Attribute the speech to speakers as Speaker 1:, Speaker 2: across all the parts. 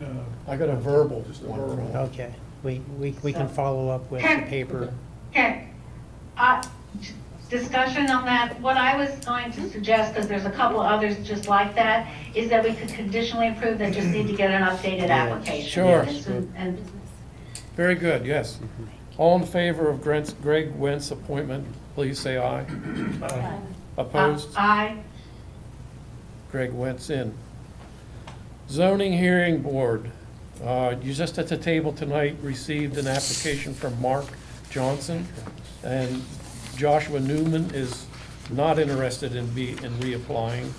Speaker 1: No,
Speaker 2: I got a verbal
Speaker 1: Just a
Speaker 2: one from
Speaker 1: verbal.
Speaker 2: her.
Speaker 3: Okay, we, we, we can follow up with the paper.
Speaker 4: Okay, uh, discussion on that, what I was going to suggest, because there's a couple others just like that, is that we could conditionally approve, they just need to get an updated application.
Speaker 2: sure.
Speaker 4: And so- And, uh,
Speaker 2: Very good, yes. All in favor of Grant's- Greg Wentz appointment, please say aye.
Speaker 1: no.
Speaker 4: uh,
Speaker 2: Opposed?
Speaker 4: I,
Speaker 2: Greg Wentz in. Zoning Hearing Board, uh, you just at the table tonight received an application from Mark Johnson, and Joshua Newman is not interested in be, in reapplying.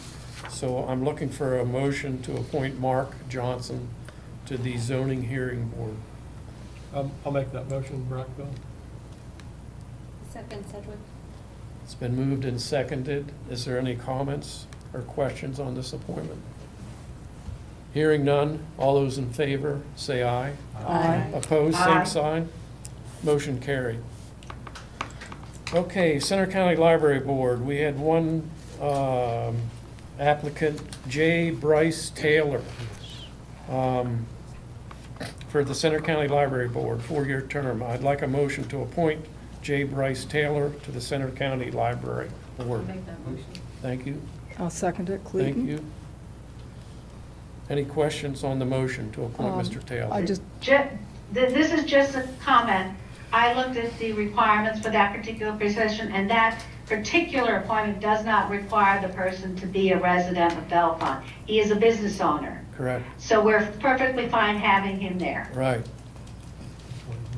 Speaker 2: So I'm looking for a motion to appoint Mark Johnson to the Zoning Hearing Board.
Speaker 1: Um, I'll make that motion, Brockville.
Speaker 5: Second, Sedgwick.
Speaker 2: It's been moved and seconded. Is there any comments or questions on this appointment? Hearing none, all those in favor, say aye.
Speaker 5: Aye.
Speaker 2: Opposed,
Speaker 4: Aye.
Speaker 2: same sign. Motion carried. Okay, Center County Library Board, we had one um, applicant, J. Bryce Taylor, um, for the Center County Library Board, four-year term. I'd like a motion to appoint J. Bryce Taylor to the Center County Library Board.
Speaker 4: make that motion.
Speaker 2: Thank you,
Speaker 6: I'll second it,
Speaker 2: thank
Speaker 6: Clayton.
Speaker 2: you. Any questions on the motion to appoint
Speaker 6: Um,
Speaker 2: Mr. Taylor?
Speaker 6: I just,
Speaker 4: Ju- th- This is just a comment. I looked at the requirements for that particular position, and that particular appointment does not require the person to be a resident of Bellefonte. He is a business owner,
Speaker 2: Correct.
Speaker 4: so we're perfectly fine having him there.
Speaker 2: Right.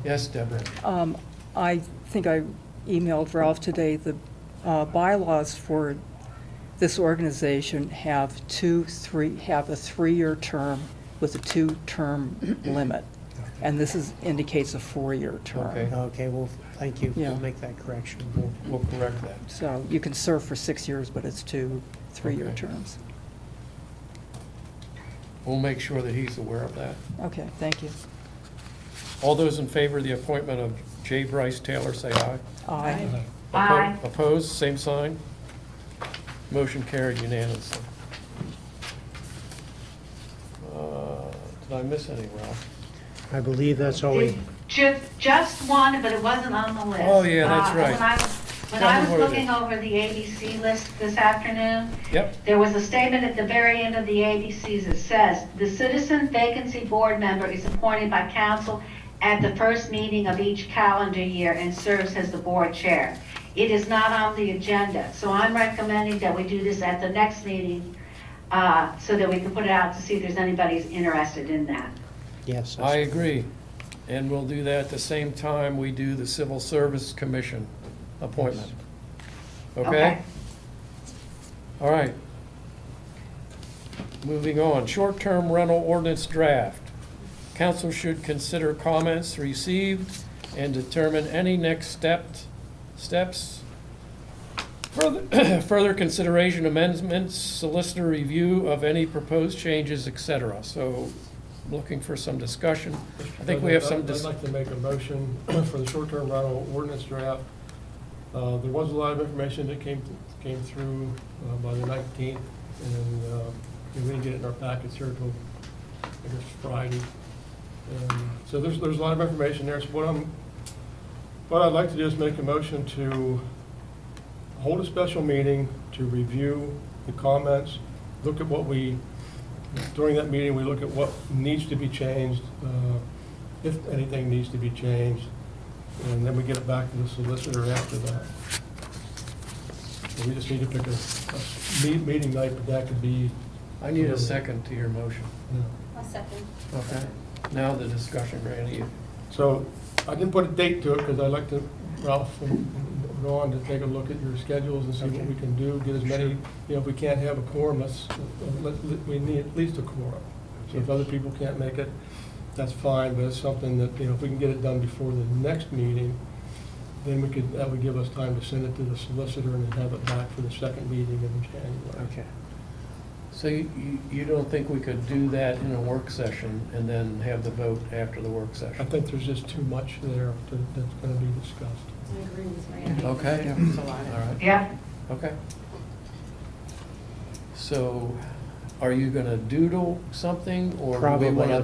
Speaker 2: Yes, Deborah.
Speaker 6: um, I think I emailed Ralph today, the uh, bylaws for this organization have two, three, have a three-year term with a two-term limit. And this is, indicates a four-year
Speaker 2: Okay.
Speaker 6: term.
Speaker 3: Okay, well, thank you. We'll
Speaker 6: Yeah.
Speaker 3: make that correction.
Speaker 2: We'll- We'll correct that.
Speaker 6: So you can serve for six years, but it's two, three-year
Speaker 2: Okay.
Speaker 6: terms.
Speaker 2: We'll make sure that he's aware of that.
Speaker 6: Okay, thank you.
Speaker 2: All those in favor of the appointment of J. Bryce Taylor, say aye.
Speaker 6: Aye.
Speaker 2: Oppo-
Speaker 4: Aye.
Speaker 2: Opposed, same sign. Motion carried unanimously. Uh, Did I miss any, Ralph?
Speaker 3: I believe that's all we,
Speaker 4: Ju- Just one, but it wasn't on the list.
Speaker 2: Oh, yeah, that's
Speaker 4: Uh,
Speaker 2: right.
Speaker 4: when I was- When
Speaker 2: Tell me
Speaker 4: I was
Speaker 2: what it is.
Speaker 4: looking over the ABC list this afternoon,
Speaker 2: Yep,
Speaker 4: There was a statement at the very end of the ABCs that says, "The citizen vacancy board member is appointed by council at the first meeting of each calendar year and serves as the board chair." It is not on the agenda, so I'm recommending that we do this at the next meeting, uh, so that we can put it out to see if there's anybody who's interested in that.
Speaker 3: yes.
Speaker 2: I agree. And we'll do that at the same time we do the Civil Service Commission appointment. Okay? All right. Moving on, short-term rental ordinance draft. Council should consider comments received and determine any next stepped, steps. Further, further consideration amendments, solicitor review of any proposed changes, et cetera. So looking for some discussion. I think we have some,
Speaker 1: I'd
Speaker 2: dis-
Speaker 1: like to make a motion for the short-term rental ordinance draft. Uh, There was a lot of information that came, came through uh, by the 19th, and uh, we didn't get it in our packets here till, I guess, Friday. And So there's, there's a lot of information there, so what I'm, what I'd like to do is make a motion to hold a special meeting to review the comments, look at what we, during that meeting, we look at what needs to be changed, uh, if anything needs to be changed, and then we get it back to the solicitor after that. So We just need to pick a, a me- meeting night, but that could be,
Speaker 2: I need a second to your motion.
Speaker 1: you know.
Speaker 5: I'll second.
Speaker 2: Okay. Now the discussion, Randy.
Speaker 1: So I didn't put a date to it because I'd like to, Ralph and and Ron, to take a look at your schedules and see what we can do, get as many, you know, if we can't have a quorum, let's, let- let- we need at least a quorum. So if other people can't make it, that's fine, but it's something that, you know, if we can get it done before the next meeting, then we could, that would give us time to send it to the solicitor and then have it back for the second meeting in January.
Speaker 3: Okay.
Speaker 2: So you, you- you don't think we could do that in a work session and then have the vote after the work
Speaker 1: I
Speaker 2: session?
Speaker 1: think there's just too much there to- that's going to be discussed.
Speaker 5: I agree with Randy.
Speaker 2: Okay.
Speaker 5: There's a
Speaker 2: All
Speaker 5: lot.
Speaker 2: right,
Speaker 4: Yeah,
Speaker 2: okay. So are you gonna doodle something or do we
Speaker 3: Probably.
Speaker 2: wanna